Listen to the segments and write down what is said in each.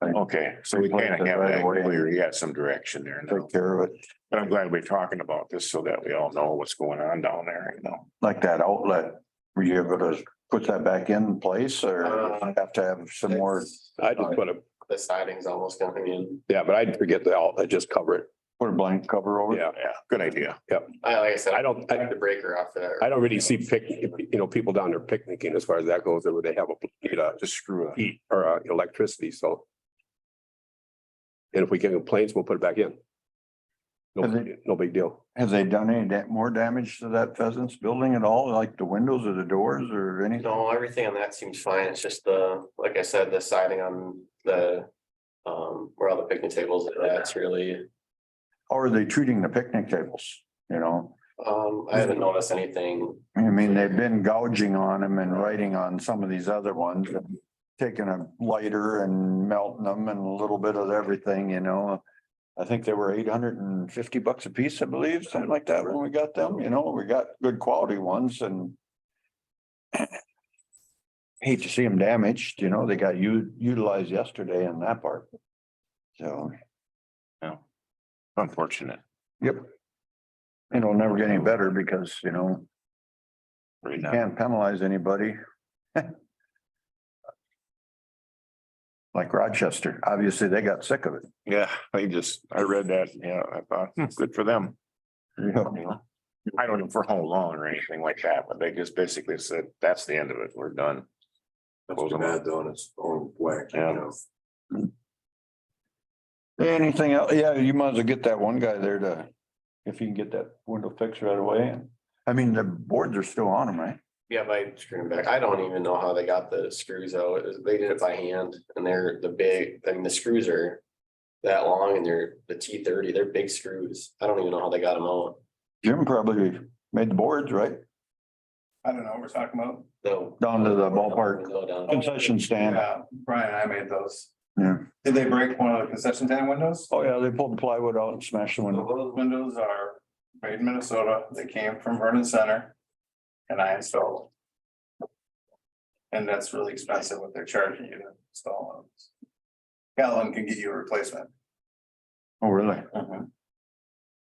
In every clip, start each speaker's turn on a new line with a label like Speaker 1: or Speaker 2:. Speaker 1: Right.
Speaker 2: Okay, so we
Speaker 1: Replace
Speaker 2: kind of
Speaker 1: it
Speaker 2: have
Speaker 1: right
Speaker 2: that
Speaker 1: away.
Speaker 2: clear. You got some direction there now.
Speaker 1: take care of it,
Speaker 2: But I'm glad we're talking about this so that we all know what's going on down there, you know.
Speaker 1: like that outlet. Were you able to put that back in place or
Speaker 3: Uh,
Speaker 1: have to have some more,
Speaker 4: I just put a,
Speaker 3: The siding's almost coming in.
Speaker 4: yeah, but I'd forget the outlet, just cover it.
Speaker 1: put a blank cover over? it?
Speaker 4: Yeah.
Speaker 2: Yeah, good idea.
Speaker 3: I, like I said,
Speaker 4: I don't-
Speaker 3: I have the breaker off for that.
Speaker 4: I don't really see pic, you know, people down there picnicking as far as that goes, where they have a, you know,
Speaker 2: Just screw it.
Speaker 4: heat or uh, electricity, so. And if we get complaints, we'll put it back in. No,
Speaker 1: Is it-
Speaker 4: no big deal.
Speaker 1: Have they done any da- more damage to that pheasants building at all, like the windows or the doors or anything?
Speaker 3: No, everything on that seems fine. It's just the, like I said, the siding on the, um, where all the picnic tables, are at, that's really,
Speaker 1: How are they treating the picnic tables? You know,
Speaker 3: um, I haven't noticed anything.
Speaker 1: I mean, they've been gouging on them and writing on some of these other ones. and Taking a lighter and melting them and a little bit of everything, you know. I think they were eight hundred and fifty bucks a piece, I believe, something like that when we got them, you know, we got good quality ones and. Hate to see them damaged, you know, they got u- utilized yesterday in that part. So.
Speaker 2: Unfortunate.
Speaker 1: Yep. It'll never get any better because, you know,
Speaker 2: Right now.
Speaker 1: can't penalize anybody. Like Rochester, obviously they got sick of it.
Speaker 2: Yeah, they just, I read that, yeah, I thought, hmm, good for them. you know? I don't know for how long or anything like that, but they just basically said, that's the end of it. We're done. Close them up.
Speaker 3: doing its own whack,
Speaker 2: you Yeah. know.
Speaker 1: Anything else? Yeah, you might as well get that one guy there to, if you can get that window fixed right away. I mean, the boards are still on them, right?
Speaker 3: Yeah, by screwing back. I don't even know how they got the screws out. It was- They did it by hand and they're the big, I mean, the screws are that long and they're the T thirty, they're big screws. I don't even know how they got them out.
Speaker 1: Jim probably made the boards, right?
Speaker 5: I don't know, what we're talking about.
Speaker 3: No.
Speaker 1: Down to the ballpark
Speaker 3: Window down.
Speaker 1: concession stand.
Speaker 5: Yeah, Brian and I made those.
Speaker 1: Yeah.
Speaker 5: Did they break one of the concession stand windows?
Speaker 1: Oh, yeah, they pulled the plywood out and smashed the window.
Speaker 5: Those windows are made in Minnesota. They came from Vernon Center. And I installed. them. And that's really expensive what they're charging you to install them. Calvin can get you a replacement.
Speaker 1: Oh, really?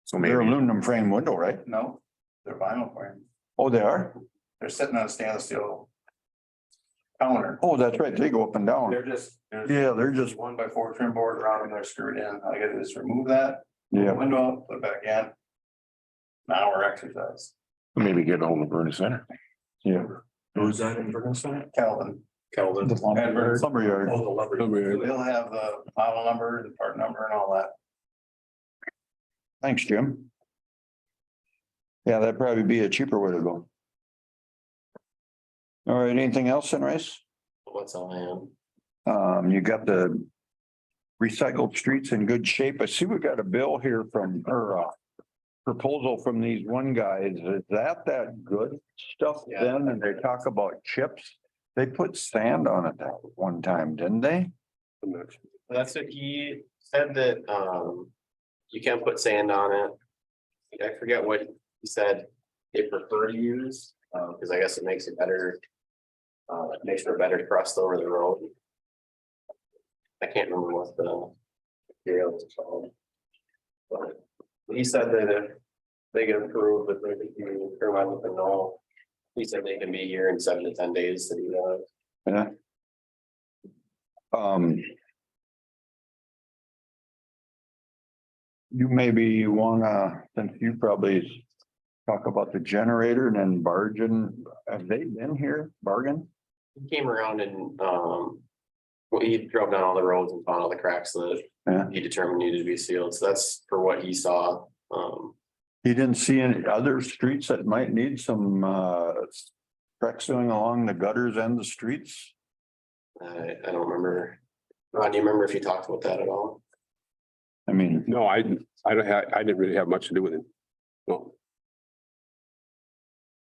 Speaker 2: So
Speaker 1: They're
Speaker 2: maybe,
Speaker 1: aluminum frame window, right?
Speaker 5: No, they're vinyl frame.
Speaker 1: Oh, they are?
Speaker 5: They're sitting on a stainless steel. Counter.
Speaker 1: Oh, that's right. They go up and down.
Speaker 5: They're just, there's
Speaker 1: Yeah, they're just,
Speaker 5: one by four trim board around and they're screwed in. All I gotta do is remove that.
Speaker 1: yeah.
Speaker 5: the window, up, put it back in. An hour exercise,
Speaker 2: maybe get a hold of Vernon Center.
Speaker 1: Yeah.
Speaker 3: Who's that in Ferguson?
Speaker 5: Calvin.
Speaker 3: Calvin.
Speaker 5: Edwards.
Speaker 1: Lumberyard.
Speaker 3: Oh, the lever.
Speaker 5: They'll have uh, the model number, the part number and all that.
Speaker 1: Thanks, Jim. Yeah, that'd probably be a cheaper way to go. All right, anything else in race?
Speaker 3: What's on hand?
Speaker 1: Um, you got the recycled streets in good shape. I see we got a bill here from, or uh, proposal from these one guys. Is that that good stuff
Speaker 3: Yeah.
Speaker 1: then? And they talk about chips. They put sand on it that one time, didn't they?
Speaker 4: I'm not sure.
Speaker 3: That's what he said that, um, you can't put sand on it. I forget what he said they prefer to use, uh, cause I guess it makes it better. Uh, it makes for a better crust over the road. I can't remember what the material is called. But he said that if they get approved, but they can, be- or I don't know. He said they can be here in seven to ten days to do that.
Speaker 1: Yeah. Um. You maybe wanna, since you probably talk about the generator and then bargain, have they been here, bargain?
Speaker 3: He came around and, um. Well, he drove down all the roads and found all the cracks that
Speaker 1: Yeah.
Speaker 3: he determined needed to be sealed, so that's for what he saw, um.
Speaker 1: You didn't see any other streets that might need some uh crack sealing along the gutters and the streets?
Speaker 3: I, I don't remember, Ron, do you remember if you talked about that at all?
Speaker 1: I mean,
Speaker 4: No, I, I don't have, I didn't really have much to do with it. No,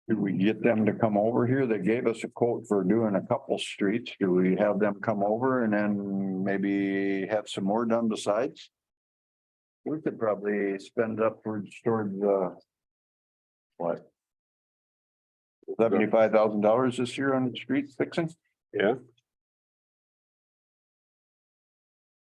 Speaker 1: did we get them to come over here? They gave us a quote for doing a couple streets. Do we have them come over and then maybe have some more done besides? We could probably spend upwards towards uh. What? Seventy-five thousand dollars this year on street fixing?
Speaker 4: yeah,